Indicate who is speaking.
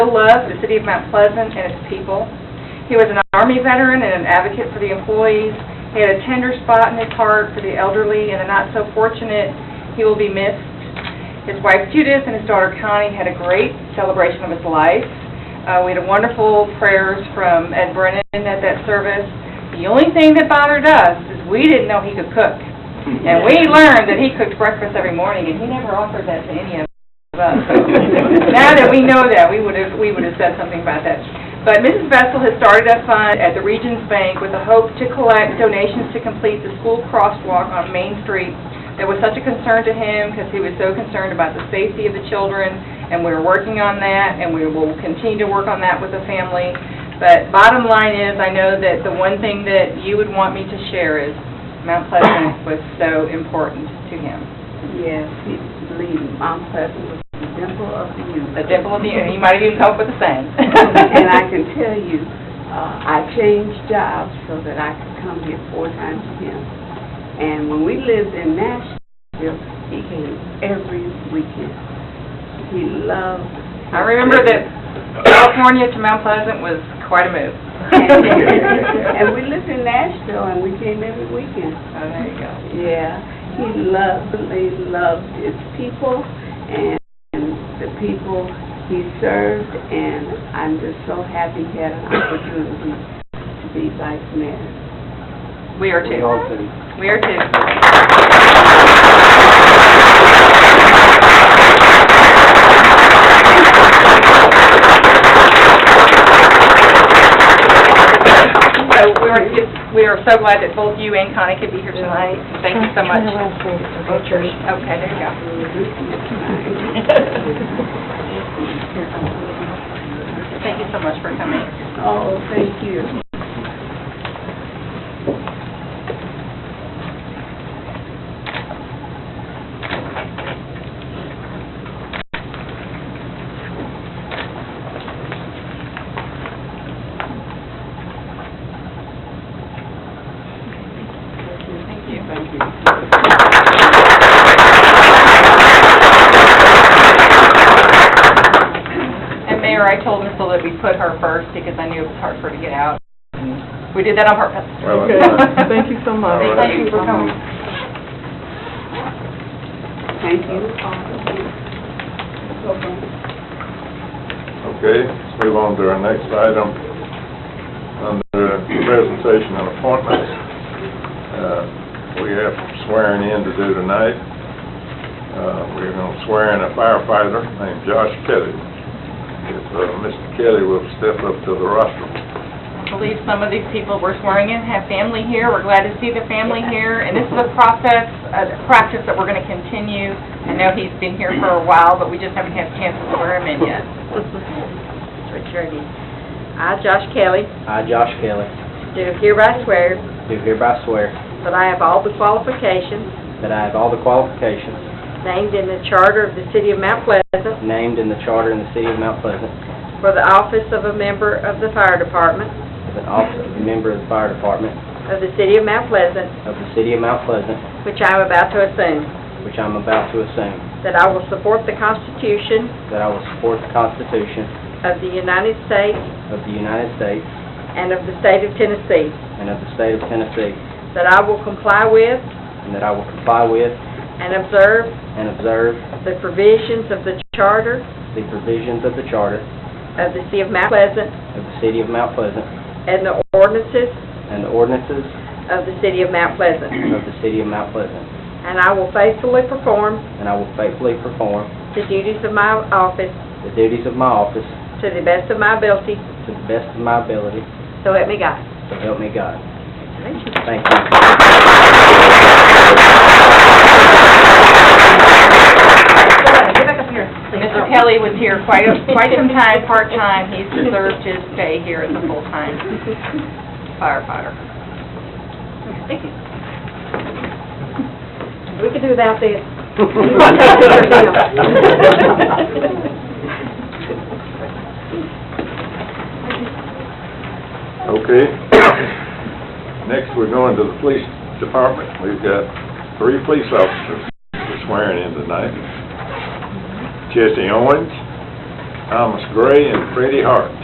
Speaker 1: Bill Love, the city of Mount Pleasant and its people. He was an Army veteran and an advocate for the employees. He had a tender spot in his heart for the elderly and the not-so-fortunate. He will be missed. His wife Judith and his daughter Connie had a great celebration of his life. Uh, We had wonderful prayers from Ed Brennan at that service. The only thing that bothered us is we didn't know he could cook. And we learned that he cooked breakfast every morning, and he never offered that to any of us. Now that we know that, we would have, we would have said something about that. But Mrs. Vessel has started a fund at the Regions Bank with the hope to collect donations to complete the school crosswalk on Main Street. That was such a concern to him, because he was so concerned about the safety of the children, and we're working on that, and we will continue to work on that with the family. But bottom line is, I know that the one thing that you would want me to share is Mount Pleasant was so important to him.
Speaker 2: Yes, he- believe me, Mount Pleasant was the dimple of the universe.
Speaker 1: The dimple of the, he might have even come up with a saying.
Speaker 2: And I can tell you, uh, I changed jobs so that I could come here four times a year. And when we lived in Nashville, he came every weekend. He loved.
Speaker 1: I remember that California to Mount Pleasant was quite a move.
Speaker 2: And we lived in Nashville and we came every weekend.
Speaker 1: Oh, there you go.
Speaker 2: Yeah, he loved, he loved his people and the people he served, and I'm just so happy he had an opportunity to be vice mayor.
Speaker 1: We are too. We are too. So we are, we are so glad that both you and Connie could be here tonight. Thank you so much. Okay, there you go. Thank you so much for coming.
Speaker 2: Oh, thank you.
Speaker 1: Thank you. And Mayor, I told Missel that we put her first because I knew it was hard for her to get out. We did that on purpose.
Speaker 3: Well,
Speaker 4: Okay, thank you so much.
Speaker 3: All
Speaker 1: Thank you for coming.
Speaker 2: Thank you.
Speaker 3: Okay, let's move on to our next item, under presentation and appointments. Uh, We have swearing in to do tonight. Uh, We're going to swear in a firefighter named Josh Kelly. If uh, Mr. Kelly will step up to the rostrum.
Speaker 1: I believe some of these people we're swearing in have family here. We're glad to see the family here, and this is a process, a practice that we're going to continue. I know he's been here for a while, but we just haven't had a chance to swear him in yet.
Speaker 5: Richard, I, Josh Kelly,
Speaker 6: I, Josh Kelly,
Speaker 5: do hereby swear
Speaker 6: do hereby swear
Speaker 5: that I have all the qualifications
Speaker 6: that I have all the qualifications
Speaker 5: named in the charter of the City of Mount Pleasant
Speaker 6: named in the charter in the city of Mount Pleasant
Speaker 5: for the office of a member of the Fire Department
Speaker 6: as an officer and member of the fire department
Speaker 5: of the City of Mount Pleasant,
Speaker 6: of the city of Mount Pleasant,
Speaker 5: which I am about to assume,
Speaker 6: which I am about to assume,
Speaker 5: that I will support the Constitution
Speaker 6: that I will support the Constitution
Speaker 5: of the United States
Speaker 6: of the United States
Speaker 5: and of the State of Tennessee,
Speaker 6: and of the state of Tennessee,
Speaker 5: that I will comply with
Speaker 6: and that I will comply with
Speaker 5: and observe
Speaker 6: and observe
Speaker 5: the provisions of the charter
Speaker 6: the provisions of the charter
Speaker 5: of the City of Mount Pleasant
Speaker 6: of the city of Mount Pleasant
Speaker 5: and the ordinances
Speaker 6: and the ordinances
Speaker 5: of the City of Mount Pleasant.
Speaker 6: of the city of Mount Pleasant,
Speaker 5: And I will faithfully perform
Speaker 6: and I will faithfully perform
Speaker 5: the duties of my office
Speaker 6: the duties of my office
Speaker 5: to the best of my ability,
Speaker 6: to the best of my ability,
Speaker 5: so help me God.
Speaker 6: so help me God. Thank you.
Speaker 1: Mr.
Speaker 2: Oh,
Speaker 1: Kelly was here quite, a- quite some time, part-time. He's deserved his stay here as a full-time firefighter. Thank you.
Speaker 5: We can do without this.
Speaker 3: Okay. Next, we're going to the police department. We've got three police officers swearing in tonight. Jesse Owens, Thomas Gray and Freddie Hart.